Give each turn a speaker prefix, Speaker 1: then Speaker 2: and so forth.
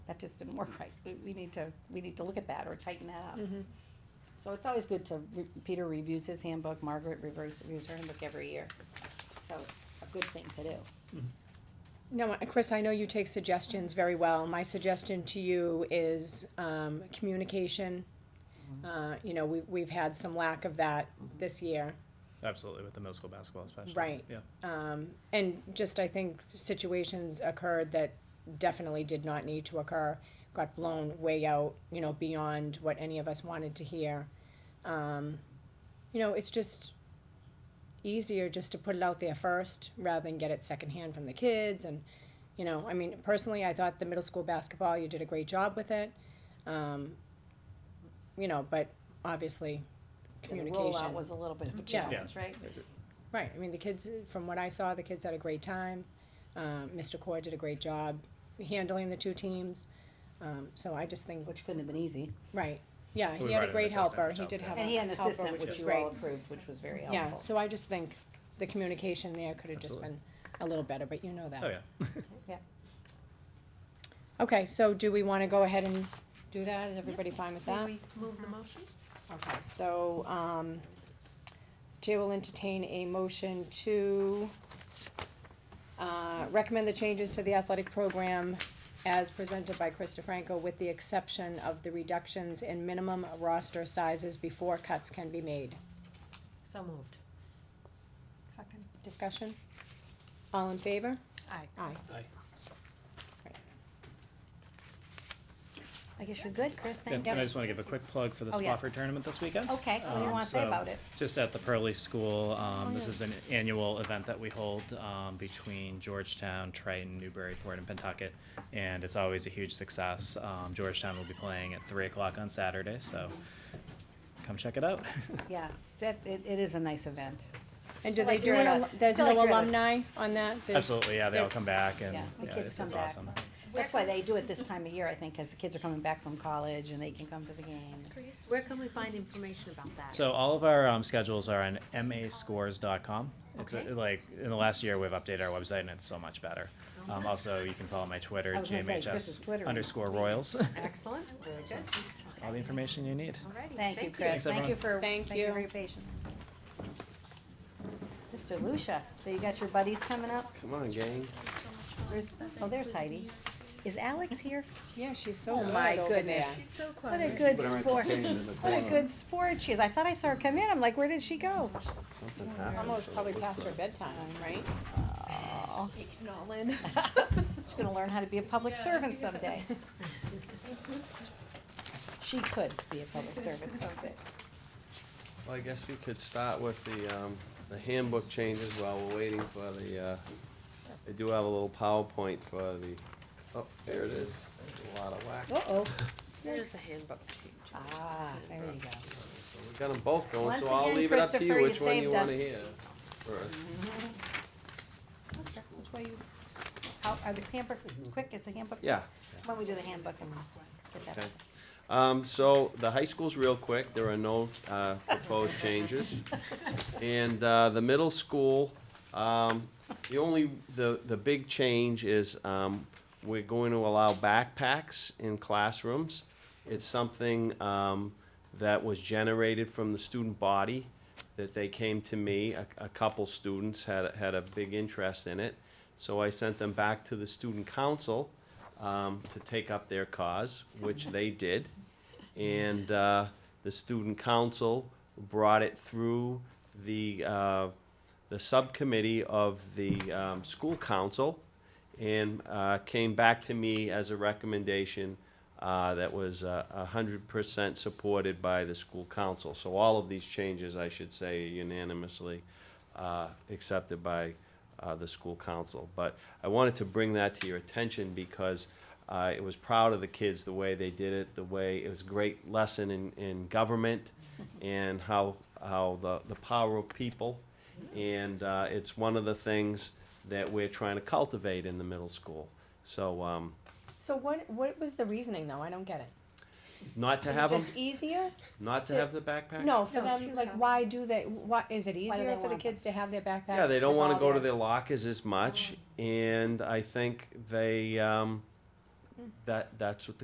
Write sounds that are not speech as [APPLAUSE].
Speaker 1: that just didn't work right. We, we need to, we need to look at that or tighten that up.
Speaker 2: Mhm.
Speaker 1: So it's always good to, re- Peter reviews his handbook, Margaret reviews, reviews her handbook every year. So it's a good thing to do.
Speaker 2: No, uh, Chris, I know you take suggestions very well. My suggestion to you is um, communication. Uh, You know, we- we've had some lack of that this year.
Speaker 3: Absolutely, with the middle school basketball especially.
Speaker 2: Right.
Speaker 3: Yeah.
Speaker 2: Um, And just, I think, situations occurred that definitely did not need to occur, got blown way out, you know, beyond what any of us wanted to hear. Um, You know, it's just easier just to put it out there first rather than get it secondhand from the kids and, you know, I mean, personally, I thought the middle school basketball, you did a great job with it. Um, You know, but obviously,
Speaker 1: And the
Speaker 2: communication.
Speaker 1: rollout was a little bit of a
Speaker 2: Yeah.
Speaker 1: challenge, right?
Speaker 2: Right, I mean, the kids, from what I saw, the kids had a great time. Um, Mr. Core did a great job handling the two teams. Um, so I just think,
Speaker 1: Which couldn't have been easy.
Speaker 2: right, yeah,
Speaker 3: We
Speaker 2: he had
Speaker 3: brought
Speaker 2: a
Speaker 3: in an
Speaker 2: great
Speaker 3: assistant
Speaker 2: helper,
Speaker 3: to
Speaker 2: he
Speaker 3: help
Speaker 2: did
Speaker 3: there.
Speaker 2: have
Speaker 1: And
Speaker 2: a
Speaker 1: he had an
Speaker 2: helper,
Speaker 1: assistant,
Speaker 2: which
Speaker 1: which
Speaker 2: is
Speaker 1: you all
Speaker 2: great.
Speaker 1: approved, which was very
Speaker 2: Yeah,
Speaker 1: helpful.
Speaker 2: so I just think the communication there could have just
Speaker 3: Absolutely.
Speaker 2: been a little better, but you know that.
Speaker 3: Oh yeah.
Speaker 2: Okay, so do we wanna go ahead and do that? Is everybody fine with that?
Speaker 4: May we move the motion?
Speaker 2: Okay, so, um, Chair will entertain a motion to, uh, recommend the changes to the athletic program as presented by Chris DeFranco with the exception of the reductions in minimum roster sizes before cuts can be made.
Speaker 4: So moved.
Speaker 1: Second.
Speaker 2: Discussion? All in favor?
Speaker 4: Aye.
Speaker 2: Aye.
Speaker 1: I guess you're good, Chris,
Speaker 3: And
Speaker 1: thank you.
Speaker 3: and I just wanna give a quick plug for the
Speaker 1: Oh, yeah.
Speaker 3: Spofford tournament this weekend.
Speaker 1: Okay, what do you
Speaker 3: Um,
Speaker 1: wanna say
Speaker 3: so-
Speaker 1: about it? Oh,
Speaker 3: Just at the Pearly School, um, this
Speaker 1: yeah.
Speaker 3: is an annual event that we hold, um, between Georgetown, Triton, Newburyport, and Pentucket. And it's always a huge success. Um, Georgetown will be playing at three o'clock on Saturday, so come check it out. [LAUGHS]
Speaker 1: Yeah, that, it, it is a nice event.
Speaker 2: And do
Speaker 1: I
Speaker 2: they
Speaker 1: like
Speaker 2: do an,
Speaker 1: your-
Speaker 2: al- there's
Speaker 1: I
Speaker 2: no
Speaker 1: like your list.
Speaker 2: alumni on that? There's-
Speaker 3: Absolutely, yeah, they all
Speaker 2: there-
Speaker 3: come back and,
Speaker 1: Yeah, the
Speaker 3: yeah,
Speaker 1: kids
Speaker 3: it's,
Speaker 1: come
Speaker 3: it's
Speaker 1: back.
Speaker 3: awesome.
Speaker 1: That's why they do it this time of year, I think, cause the kids are coming back from college and they can come to the game.
Speaker 4: Where can we find information about that?
Speaker 3: So all of our um, schedules are on mascores.com. It's
Speaker 4: Okay.
Speaker 3: uh, like in the last year we've updated our website and it's so much better.
Speaker 4: Oh.
Speaker 3: Um, also, you can follow my Twitter
Speaker 1: I was gonna say, Chris's Twitter.
Speaker 3: gmhs underscore
Speaker 1: [LAUGHS]
Speaker 3: Royals.
Speaker 4: Excellent, very good.
Speaker 3: all the information you need.
Speaker 4: Alrighty,
Speaker 1: Thank you, Chris,
Speaker 3: Thanks,
Speaker 1: thank you
Speaker 3: everyone.
Speaker 1: for,
Speaker 2: Thank
Speaker 1: thank you for
Speaker 2: you.
Speaker 1: your patience. Mr. Lucia, so you got your buddies coming up?
Speaker 5: Come on, gang.
Speaker 1: Where's, oh, there's Heidi. Is Alex here?
Speaker 2: Yeah, she's so
Speaker 1: Oh
Speaker 2: mad
Speaker 1: my
Speaker 2: over there.
Speaker 1: goodness.
Speaker 6: She's so quiet.
Speaker 1: What a good
Speaker 5: Put her
Speaker 1: sport.
Speaker 5: entertained in the
Speaker 1: What a
Speaker 5: corner.
Speaker 1: good sport she is. I thought I saw her come in. I'm like, where did she go?
Speaker 5: Something happened.
Speaker 2: Almost
Speaker 5: so
Speaker 2: probably
Speaker 5: it looks
Speaker 2: past her
Speaker 5: like-
Speaker 2: bedtime, right?
Speaker 1: Oh,
Speaker 6: Taking it all in.
Speaker 1: She's gonna learn how to be a public
Speaker 6: Yeah.
Speaker 1: servant someday. She could be a public servant someday.
Speaker 5: Well, I guess we could start with the, um, the handbook changes while we're waiting for the, uh, I do have a little PowerPoint for the, oh, there it is. There's a lot of whack. So
Speaker 1: Uh-oh.
Speaker 4: There's the handbook change.
Speaker 1: Ah, there you go.
Speaker 5: we got them both going,
Speaker 1: Once
Speaker 5: so I'll
Speaker 1: again,
Speaker 5: leave it up to you
Speaker 1: Christopher,
Speaker 5: which
Speaker 1: you
Speaker 5: one you
Speaker 1: saved
Speaker 5: wanna
Speaker 1: us. Mm-hmm.
Speaker 5: hear first.
Speaker 1: Okay, Which way you, how, are the handbook, quick, is the handbook?
Speaker 5: Yeah,
Speaker 1: Why don't we do the handbook and get that?
Speaker 5: okay. Um, so the high school's real quick. There are no, uh, proposed changes. And uh, the middle school, um, the only, the, the big change is um, we're going to allow backpacks in classrooms. It's something um, that was generated from the student body, that they came to me, a, a couple students had, had a big interest in it. So I sent them back to the student council um, to take up their cause, which they did and uh, the student council brought it through the uh, the subcommittee of the um, school council, and uh, came back to me as a recommendation uh, that was a hundred percent supported by the school council. So all of these changes, I should say, unanimously uh, accepted by uh, the school council. But I wanted to bring that to your attention because I was proud of the kids, the way they did it, the way, it was a great lesson in, in
Speaker 2: [LAUGHS]
Speaker 5: government and how, how the, the power of people. And uh, it's one of the things that we're trying to cultivate in the middle school. So, um,
Speaker 2: So what, what was the reasoning though? I don't get it.
Speaker 5: not to
Speaker 2: Is it
Speaker 5: have them,
Speaker 2: just easier?
Speaker 5: not to
Speaker 2: to-
Speaker 5: have the backpack?
Speaker 2: No, for
Speaker 6: No,
Speaker 2: them,
Speaker 6: two
Speaker 2: like,
Speaker 6: have.
Speaker 2: why do they, why, is it
Speaker 1: they
Speaker 2: easier for the
Speaker 1: want
Speaker 2: kids to have their backpacks?
Speaker 5: Yeah, they don't
Speaker 2: with
Speaker 5: wanna
Speaker 2: all Oh.
Speaker 5: go to their lockers as much, and I think they, um, That, that's what the